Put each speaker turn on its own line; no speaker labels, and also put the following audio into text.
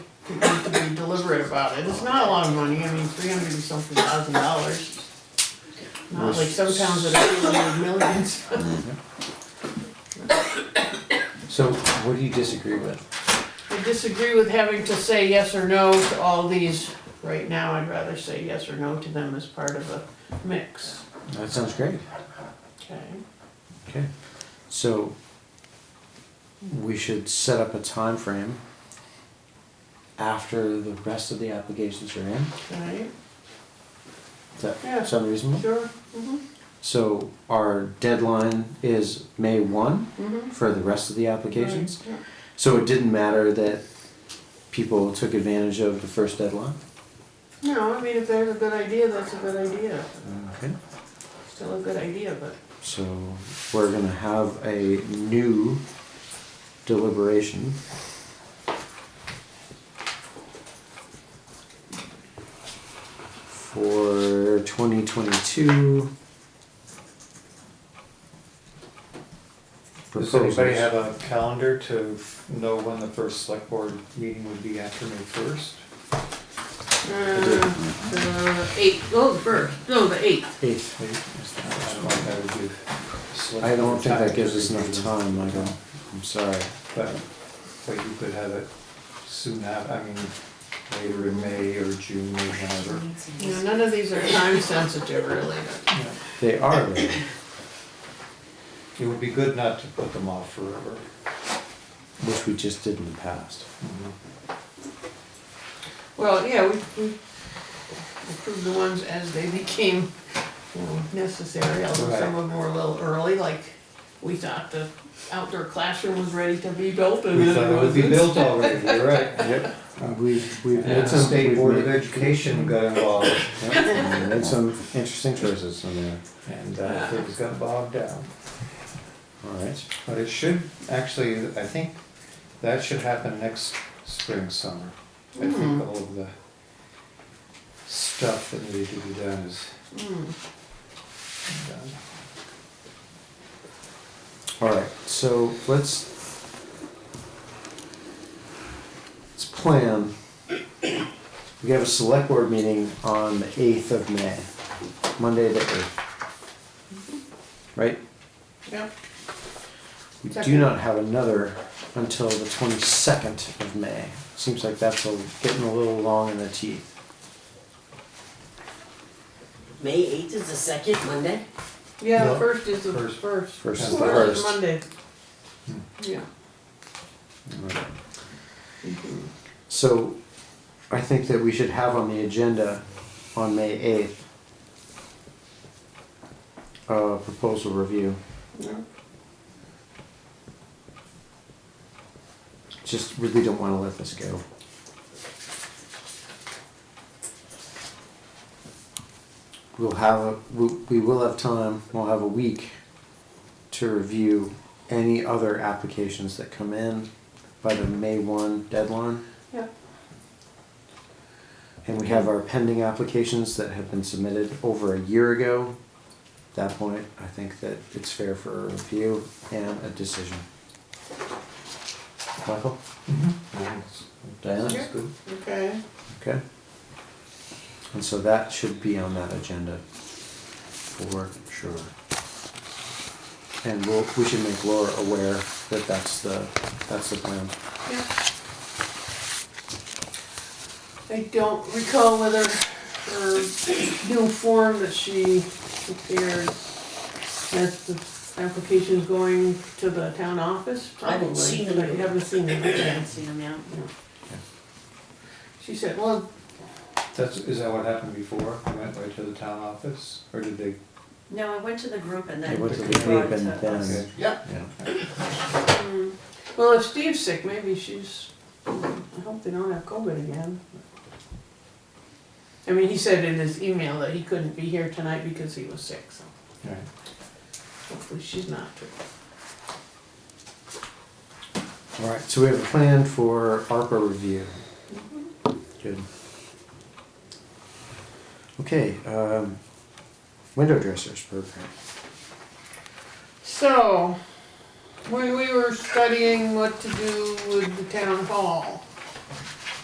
people to be deliberate about it. It's not a lot of money, I mean, three hundred and something thousand dollars. Not like some towns that are dealing with millions.
So what do you disagree with?
I disagree with having to say yes or no to all these. Right now, I'd rather say yes or no to them as part of a mix.
That sounds great.
Okay.
Okay. So we should set up a time frame after the rest of the applications are in.
Right,
Does that
Yeah.
sound reasonable?
sure, mm-hmm,
So our deadline is May one
mm-hmm.
for the rest of the applications. So it didn't matter that people took advantage of the first deadline.
No, I mean, if there's a good idea, that's a good idea.
Okay.
Still a good idea, but
So we're gonna have a new deliberation. For twenty twenty-two.
Does anybody have a calendar to know when the first select board meeting would be after May first?
Uh, the eighth, oh, the first, no, the eighth.
Eighth.
I don't know if that would give. select
I don't
board
think
time
that
to
gives us enough
review.
time, Michael, I'm sorry.
But, but you could have it soon af, I mean, later in May or June or whatever.
You know, none of these are time sensitive really.
Yeah.
They are, though.
It would be good not to put them off forever.
which we just did in the past.
Well, yeah, we, we approved the ones as they became, you know, necessary, although some of them were a little early, like we thought the outdoor classroom was ready to be built and
We
then
thought
it
it would be
wasn't.
built already, you're right.
Yep. Uh, We've, we've
And
made
the
some.
State
we've
Board of
made-
Education got involved
Yep, we made some interesting choices on there,
and uh, things got bogged down.
alright.
But it should, actually, I think that should happen next spring, summer. I think
Mm.
all of the stuff that needed to be done is
Mm,
done.
Alright, so let's. Let's plan. We have a select board meeting on the eighth of May, Monday the eighth. Right?
Yep,
We do
Second.
not have another until the twenty-second of May. Seems like that's a- getting a little long in the teeth.
May eighth is the second Monday?
yeah, the
No.
first is the
First.
first.
First
is Hmm.
the
First
first.
is Monday. Yeah.
Alright. So, I think that we should have on the agenda on May eighth, a proposal review,
Yeah.
just really don't wanna let this go. We'll have, a we, we will have time, we'll have a week to review any other applications that come in by the May one deadline.
Yeah.
And we have our pending applications that have been submitted over a year ago. At that point, I think that it's fair for a review and a decision. Michael?
That's-
Diana?
That's good.
Okay.
Okay. And so that should be on that agenda for sure. And we'll, we should make Laura aware that that's the, that's the plan.
Yeah. I don't recall whether her new form that she prepared has the applications going to the town office,
I
probably.
haven't seen them.
But you haven't seen them, okay.
see them yet.
She said, well,
That's, is that what happened before? You went right to the town office, or did they?
No, I went to the group and
They
then.
went to the
they brought uh, it
group and
to us.
then-
okay. Yeah.
Yeah.
mm, well, if Steve's sick, maybe she's, I hope they don't have COVID again. I mean, he said in his email that he couldn't be here tonight because he was sick, so
Right.
hopefully she's not too.
All right, so we have a plan for ARPA review. Good. Okay, um, window dressers program.
So, when we were studying what to do with the town hall,